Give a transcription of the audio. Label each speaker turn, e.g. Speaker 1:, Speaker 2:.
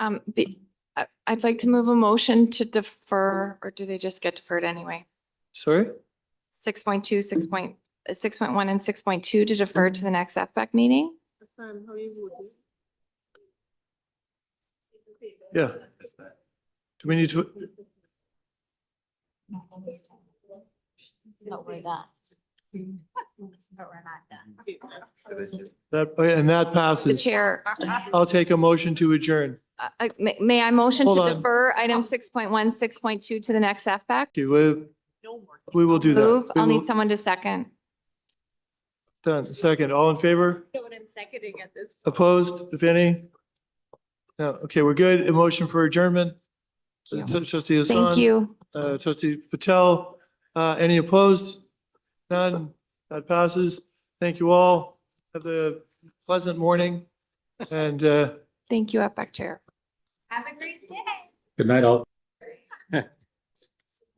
Speaker 1: Um, be, I, I'd like to move a motion to defer, or do they just get deferred anyway?
Speaker 2: Sorry?
Speaker 1: Six point two, six point, six point one and six point two to defer to the next FPEC meeting?
Speaker 2: Yeah. Do we need to,
Speaker 3: But we're not. But we're not done.
Speaker 2: that, and that
Speaker 1: The
Speaker 2: passes.
Speaker 1: chair,
Speaker 2: I'll take a motion to adjourn.
Speaker 1: uh, uh, may, may I motion
Speaker 2: Hold
Speaker 1: to
Speaker 2: on.
Speaker 1: defer item six point one, six point two to the next FPEC?
Speaker 2: Okay, we, we will do that.
Speaker 1: Move,
Speaker 2: We
Speaker 1: I'll need
Speaker 2: will-
Speaker 1: someone to second.
Speaker 2: Done. Second, all in favor?
Speaker 3: No one is seconding at this.
Speaker 2: Opposed, if any? No, okay, we're good. A motion for adjournment. Trustee Hassan.
Speaker 1: Thank you.
Speaker 2: Uh, trustee Patel, uh, any opposed? None, that passes. Thank you all. Have a pleasant morning and, uh,
Speaker 1: Thank you, FPEC E Chair.
Speaker 3: Have a great day.
Speaker 4: Good night, all.